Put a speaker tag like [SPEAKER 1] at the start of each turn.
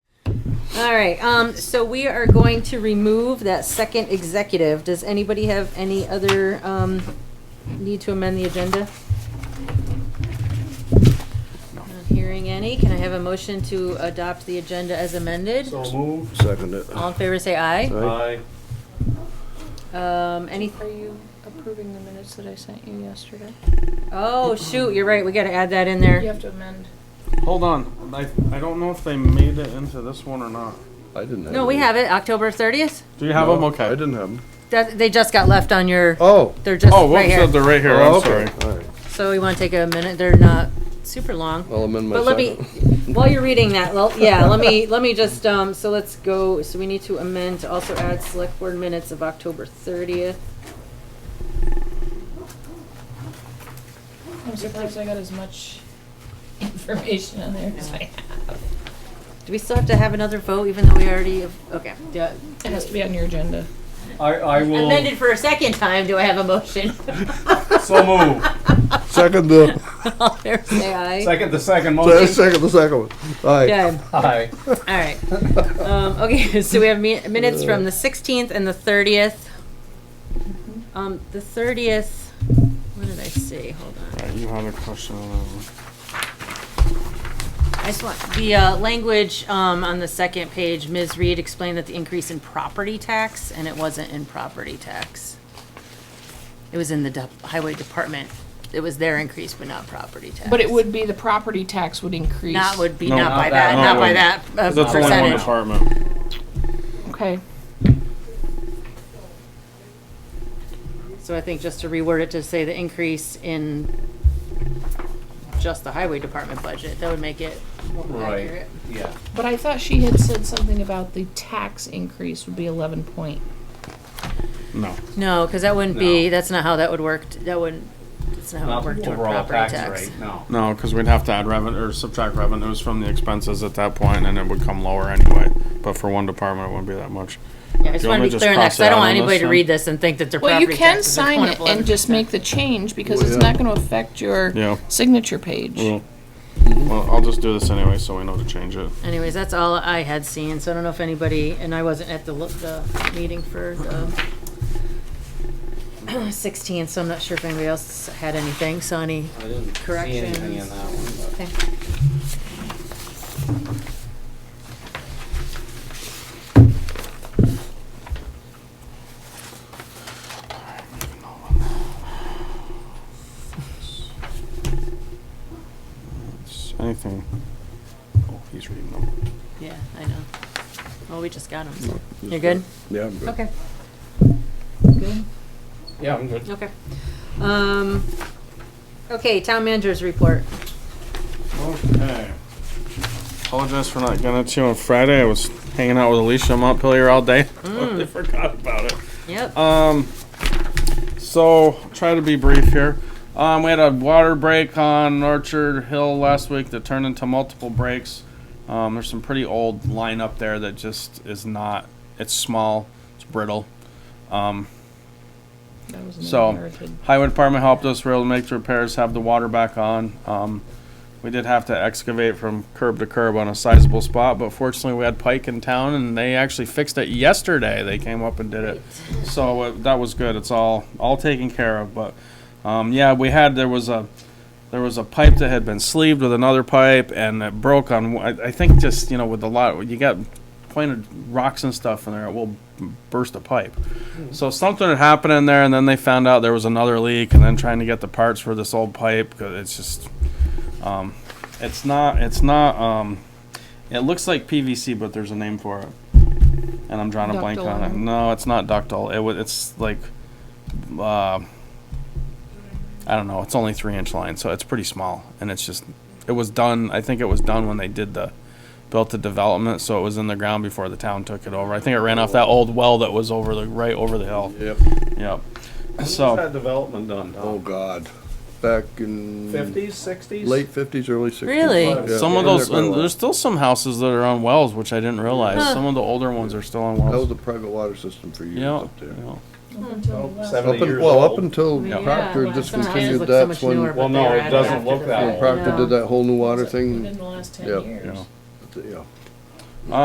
[SPEAKER 1] All right, um, so we are going to remove that second executive. Does anybody have any other, um, need to amend the agenda? Not hearing any. Can I have a motion to adopt the agenda as amended?
[SPEAKER 2] So moved.
[SPEAKER 3] Second it.
[SPEAKER 1] All in favor, say aye.
[SPEAKER 2] Aye.
[SPEAKER 1] Um, any,
[SPEAKER 4] Are you approving the minutes that I sent you yesterday?
[SPEAKER 1] oh, shoot, you're right, we gotta add that in there.
[SPEAKER 4] You have to amend.
[SPEAKER 5] Hold on, I, I don't know if they made it into this one or not.
[SPEAKER 3] I didn't have.
[SPEAKER 1] No, we
[SPEAKER 3] any.
[SPEAKER 1] have it, October thirtieth.
[SPEAKER 5] Do you have them?
[SPEAKER 3] No,
[SPEAKER 5] Okay.
[SPEAKER 3] I didn't have them.
[SPEAKER 1] That, they just got left on your,
[SPEAKER 3] Oh.
[SPEAKER 1] they're just
[SPEAKER 5] Oh, whoops,
[SPEAKER 1] right here.
[SPEAKER 5] they're right here,
[SPEAKER 3] oh,
[SPEAKER 5] I'm
[SPEAKER 3] okay.
[SPEAKER 5] sorry.
[SPEAKER 3] All right.
[SPEAKER 1] So we wanna take a minute, they're not super long.
[SPEAKER 3] I'll amend my
[SPEAKER 1] But let me,
[SPEAKER 3] second.
[SPEAKER 1] while you're reading that, well, yeah, let me, let me just, um, so let's go, so we need to amend to also add select board minutes of October thirtieth.
[SPEAKER 4] I'm surprised I got as much information on there as I have.
[SPEAKER 1] Do we still have to have another vote even though we already, have- okay. yeah.
[SPEAKER 4] It has to be on your agenda.
[SPEAKER 2] I, I will.
[SPEAKER 1] Amended for a second time, do I have a motion?
[SPEAKER 2] So moved.
[SPEAKER 3] Second the,
[SPEAKER 1] All in favor, say aye.
[SPEAKER 2] Second, the second
[SPEAKER 3] the
[SPEAKER 2] motion.
[SPEAKER 3] second the second one. All right.
[SPEAKER 1] Okay, all right.
[SPEAKER 2] Aye.
[SPEAKER 1] Um, okay, so we have mi- minutes from the sixteenth and the thirtieth.
[SPEAKER 4] Mm-hmm.
[SPEAKER 1] Um, the thirtieth, what did I say? Hold on.
[SPEAKER 5] Alright, you had a question on that one.
[SPEAKER 1] I just want, the uh, language um, on the second page, Ms. Reed explained that the increase in property tax, and it wasn't in property tax. It was in the dep- highway department. It was their increase, but not property tax.
[SPEAKER 4] But it would be, the property tax would increase.
[SPEAKER 1] Not would be,
[SPEAKER 5] No,
[SPEAKER 1] not
[SPEAKER 5] not
[SPEAKER 1] by
[SPEAKER 2] that,
[SPEAKER 1] that,
[SPEAKER 5] no,
[SPEAKER 1] not
[SPEAKER 5] it
[SPEAKER 1] by that
[SPEAKER 5] wouldn't.
[SPEAKER 1] uh,
[SPEAKER 5] That's only one
[SPEAKER 1] percentage.
[SPEAKER 5] department.
[SPEAKER 4] Okay.
[SPEAKER 1] So I think just to reword it to say the increase in just the highway department budget, that would make it more
[SPEAKER 2] Right.
[SPEAKER 1] accurate.
[SPEAKER 2] Yeah.
[SPEAKER 4] But I thought she had said something about the tax increase would be eleven point.
[SPEAKER 5] No.
[SPEAKER 1] No, because that wouldn't be,
[SPEAKER 2] No.
[SPEAKER 1] that's not how that would work, t- that wouldn't, that's not how
[SPEAKER 2] Not
[SPEAKER 1] it worked
[SPEAKER 2] the
[SPEAKER 1] toward
[SPEAKER 2] overall
[SPEAKER 1] property
[SPEAKER 2] tax
[SPEAKER 1] tax.
[SPEAKER 2] rate, no.
[SPEAKER 5] No, because we'd have to add revenue, or subtract revenues from the expenses at that point, and it would come lower anyway. But for one department, it wouldn't be that much.
[SPEAKER 1] Yeah, I just
[SPEAKER 5] you
[SPEAKER 1] want
[SPEAKER 5] want
[SPEAKER 1] to
[SPEAKER 5] me
[SPEAKER 1] be
[SPEAKER 5] to
[SPEAKER 1] clear on that, because I
[SPEAKER 5] just cross
[SPEAKER 1] don't
[SPEAKER 5] that
[SPEAKER 1] want
[SPEAKER 5] out on
[SPEAKER 1] anybody
[SPEAKER 5] this
[SPEAKER 1] to
[SPEAKER 5] then?
[SPEAKER 1] read this and think that their
[SPEAKER 4] Well,
[SPEAKER 1] property
[SPEAKER 4] you can
[SPEAKER 1] taxes are
[SPEAKER 4] sign
[SPEAKER 1] going
[SPEAKER 4] it
[SPEAKER 1] up
[SPEAKER 4] and just
[SPEAKER 1] 11%.
[SPEAKER 4] make the change because it's
[SPEAKER 3] yeah.
[SPEAKER 4] not gonna affect your
[SPEAKER 5] Yeah.
[SPEAKER 4] signature page.
[SPEAKER 5] Well, well, I'll just do this anyway, so we know to change it.
[SPEAKER 1] Anyways, that's all I had seen, so I don't know if anybody, and I wasn't at the, lo- the meeting for the sixteen, so I'm not sure if anybody else had anything, so any,
[SPEAKER 2] I didn't see anything in
[SPEAKER 1] Corrections.
[SPEAKER 2] that one. but-
[SPEAKER 1] okay.
[SPEAKER 5] It's Anything? Oh, he's reading them.
[SPEAKER 1] Yeah, I know. Well, we just got them, so, you're good?
[SPEAKER 3] Yeah. I'm good.
[SPEAKER 1] Okay. Good?
[SPEAKER 2] Yeah, I'm good.
[SPEAKER 1] Okay. Um, okay, town managers report.
[SPEAKER 5] Okay. Apologize for not getting it to you on Friday. I was hanging out with Alicia in Montpelier all day. Totally forgot about it.
[SPEAKER 1] Yep.
[SPEAKER 5] Um, so try to be brief here. Um, we had a water break on Orchard Hill last week that turned into multiple breaks. Um, there's some pretty old line up there that just is not. It's small. It's brittle. Um,
[SPEAKER 4] That was an
[SPEAKER 5] So-
[SPEAKER 4] American.
[SPEAKER 5] Highway department helped us. We were able to make the repairs, have the water back on. Um, we did have to excavate from curb to curb on a sizable spot, but fortunately we had Pike in town and they actually fixed it yesterday. They came up and did it. So uh, that was good. It's all, all taken care of, but, um, yeah, we had, there was a, there was a pipe that had been sleeved with another pipe and it broke on, one- I, I think just, you know, with a lot, you got pointed rocks and stuff in there, it will burst a pipe. So something had happened in there, and then they found out there was another leak, and then trying to get the parts for this old pipe. 'cause It's just, um, it's not, it's not. Um, it looks like PVC, but there's a name for it, and I'm drawing a blank
[SPEAKER 4] Ductile
[SPEAKER 5] on it.
[SPEAKER 4] iron?
[SPEAKER 5] No, it's not ductile. It wa- it's like, uh, I don't know. It's only three inch line, so it's pretty small, and it's just, it was done. I think it was done when they did the built the development, so it was in the ground before the town took it over. I think it ran off that old well that was over the right over the hill.
[SPEAKER 3] Yep.
[SPEAKER 5] Yep.
[SPEAKER 2] When's
[SPEAKER 5] So
[SPEAKER 2] that development done,
[SPEAKER 3] Oh
[SPEAKER 2] Tom?
[SPEAKER 3] God. Back in
[SPEAKER 2] Fifties, sixties?
[SPEAKER 3] late fifties, early sixties.
[SPEAKER 1] Really?
[SPEAKER 3] Yeah.
[SPEAKER 5] some of
[SPEAKER 3] Yeah,
[SPEAKER 5] those,
[SPEAKER 3] they're quite
[SPEAKER 5] and
[SPEAKER 3] a lot.
[SPEAKER 5] there's still some houses that are on wells, which I didn't realize.
[SPEAKER 1] Huh.
[SPEAKER 5] Some of the older ones are still on
[SPEAKER 3] That was
[SPEAKER 5] wells.
[SPEAKER 3] a private water system for years
[SPEAKER 5] Yeah.
[SPEAKER 3] up there.
[SPEAKER 5] yeah.
[SPEAKER 3] Up
[SPEAKER 2] Seventy
[SPEAKER 3] and,
[SPEAKER 2] years
[SPEAKER 3] well, up
[SPEAKER 2] old.
[SPEAKER 3] until
[SPEAKER 1] Yeah.
[SPEAKER 3] Proctor
[SPEAKER 4] Well, some of the houses
[SPEAKER 3] discontinued,
[SPEAKER 1] look so
[SPEAKER 3] that's
[SPEAKER 1] much
[SPEAKER 3] when,
[SPEAKER 1] newer,
[SPEAKER 3] when
[SPEAKER 1] but
[SPEAKER 2] Well, no,
[SPEAKER 1] they were
[SPEAKER 2] it
[SPEAKER 1] added
[SPEAKER 2] doesn't
[SPEAKER 1] after
[SPEAKER 2] look
[SPEAKER 1] the
[SPEAKER 2] that
[SPEAKER 1] fact.
[SPEAKER 2] old.
[SPEAKER 3] Proctor
[SPEAKER 1] No.
[SPEAKER 3] did that whole new water
[SPEAKER 4] Within
[SPEAKER 3] thing.
[SPEAKER 4] the last ten
[SPEAKER 3] Yeah.
[SPEAKER 4] years.
[SPEAKER 5] Yeah.
[SPEAKER 3] Yeah.